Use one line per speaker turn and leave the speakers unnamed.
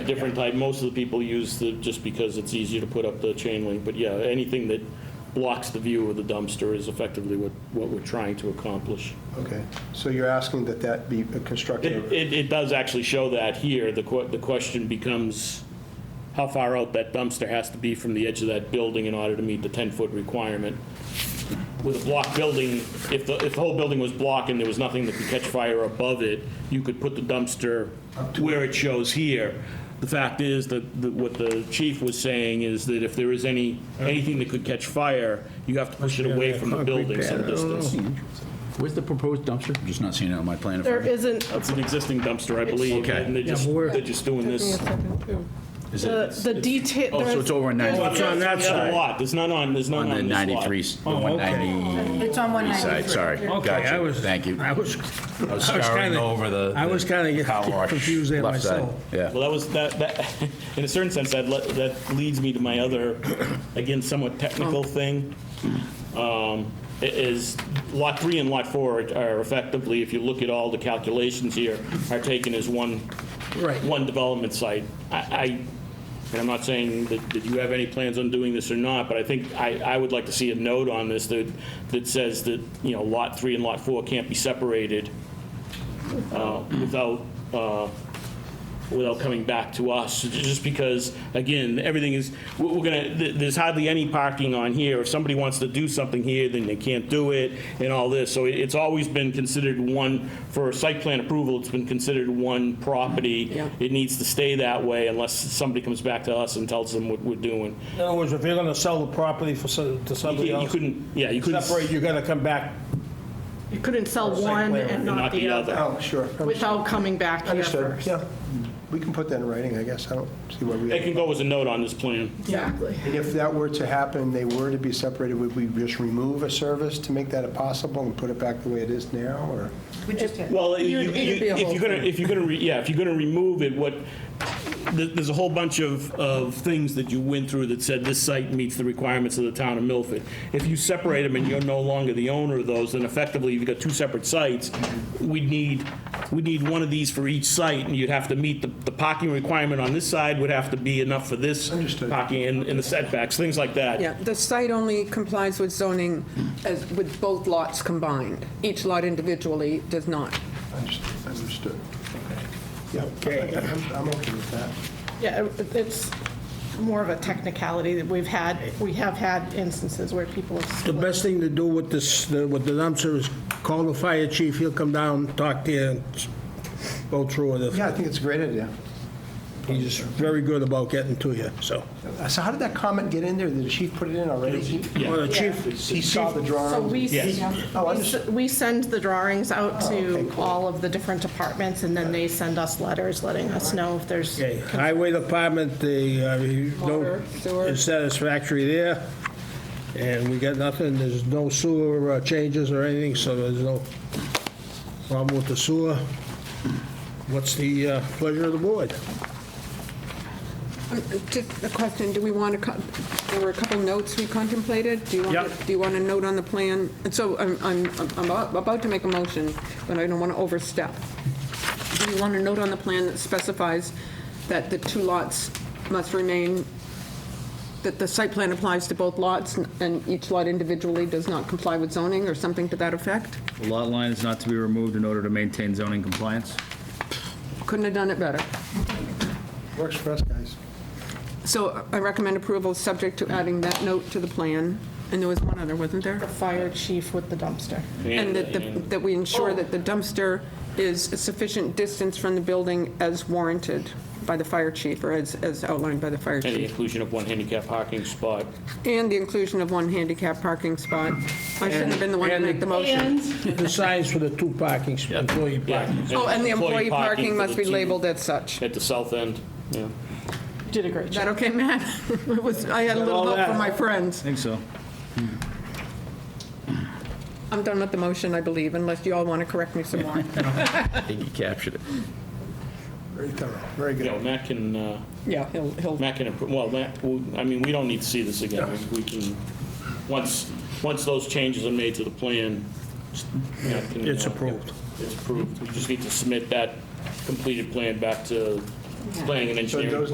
different type, most of the people use the, just because it's easier to put up the chain link, but yeah, anything that blocks the view of the dumpster is effectively what, what we're trying to accomplish.
Okay, so you're asking that that be
It,
constructed?
it, it does actually show that here, the que, the question becomes how far out that dumpster has to be from the edge of that building in order to meet the ten-foot requirement. With a block building, if the, if the whole building was block and there was nothing that could catch fire above it, you could put the dumpster where it shows here. The fact is that, that what the chief was saying is that if there is any, anything that could catch fire, you have to push it away from the building some distance.
Oh. Where's the proposed dumpster? I'm just not seeing it on my plan.
There isn't,
It's an existing dumpster, I believe,
Okay.
and they're just,
but we're-
they're just doing this.
Is
the
it?
the detail.
Oh, so it's over in 93.
It's on that
The other
side.
lot, there's none on, there's none
On the
on this lot.
93, the
Oh, okay.
193
It's on
side,
193.
sorry.
Okay, I
Gotcha,
was-
thank you.
I was,
I was
I was
scouring
kinda-
over the.
I was
the
kinda
car wash
confused there
left side.
myself.
Yeah.
Well, that was, that, that, in a certain sense, that, le- that leads me to my other, again, somewhat technical thing. Um, i- Is lot three and lot four are effectively, if you look at all the calculations here, are taken as one,
Right.
one development site. I, I- and I'm not saying that, that you have any plans on doing this or not, but I think, I, I would like to see a note on this that, that says that, you know, lot three and lot four can't be separated uh, without, uh, without coming back to us, just because, again, everything is, we're we're gonna, th- there's hardly any parking on here. If somebody wants to do something here, then they can't do it, and all this. So it- it's always been considered one, for site plan approval, it's been considered one property. It needs to stay that way unless somebody comes back to us and tells them what we're doing.
In other words, if you're gonna sell the property for, some- to
You
somebody
can't- you
else,
couldn't, yeah, you couldn't.
separate, you gotta come back.
You couldn't sell
Site
one
plan
and
and
not the other
Oh, sure,
without coming back here
understood,
first.
yeah. We can put that in writing, I guess, I don't see why we.
It can go as a note on this plan.
Exactly.
And if that were to happen, they were to be separated, would we just remove a service to make that impossible and put it back the way it is now, or?
We just did.
Well, you-
It'd- it'd
you-
be a
if
whole
you're gonna,
thing.
if you're gonna, re- yeah, if you're gonna remove it, what, th- there's a whole bunch of, of things that you went through that said this site meets the requirements of the town of Milford. If you separate them and you're no longer the owner of those, then effectively you've got two separate sites. We'd need, we'd need one of these for each site, and you'd have to meet the, the parking requirement on this side would have to be enough for this
Understood.
parking and, and the setbacks, things like that.
Yeah, the site only complies with zoning as, with both lots combined. Each lot individually does not.
Understood, understood. Yeah, okay, I'm I'm okay with that.
Yeah, it- it's more of a technicality that we've had, we have had instances where people have
The
split.
best thing to do with this, the- with the dumpster is call the fire chief, he'll come down, talk to you, and go through it.
Yeah, I think it's a great idea.
He's very good about getting to you, so.
So how did that comment get in there? Did the chief put it in already? He-
Well, the chief,
He saw the drawing?
So we,
Yes.
Oh,
we
understood.
s- we send the drawings out to all of the different departments, and then they send us letters letting us know if there's,
Okay, Highway Department, the, uh, you
Water, sewer.
no satisfactory there, and we got nothing, there's no sewer uh, changes or anything, so there's no problem with the sewer. What's the uh, pleasure of the board?
Um, Just a question, do we want to, there were a couple notes we contemplated. Do you want,
Yep.
to- do you want a note on the plan? And so I'm, I'm I'm about about to make a motion, but I don't want to overstep. Do you want a note on the plan that specifies that the two lots must remain, that the site plan applies to both lots and each lot individually does not comply with zoning or something to that effect?
The Lot line is not to be removed in order to maintain zoning compliance.
Couldn't have done it better.
Works for us, guys.
So I recommend approval, subject to adding that note to the plan. And there was one other, wasn't there?
the fire chief with the dumpster.
And that, the- that we ensure that the dumpster is a sufficient distance from the building as warranted by the fire chief, or as, as outlined by the fire
And the
chief.
inclusion of one handicap parking spot.
And the inclusion of one handicap parking spot. I shouldn't have been the one to
And-
make the motion.
The signs for the two parking, sp- employee
Yeah.
parking.
Oh, and the employee parking
for
must
the
be
two
labeled as such. Is
At the south end, yeah.
Did a great job.
that okay, Matt? It was, I had a little
all
help
that.
from my friends.
I think so.
I'm done with the motion, I believe, unless you all want to correct me some more.
I think you captured it.
Very thorough, very
You know,
good.
Matt can, uh,
Yeah, he'll, he'll
Matt can, appro- well, Matt, well, I mean, we don't need to see this again. We can, once, once those changes are made to the plan, Matt can.
It's
uh,
approved.
It's approved. We just need to submit that completed plan back to
playing an
So
engineering
those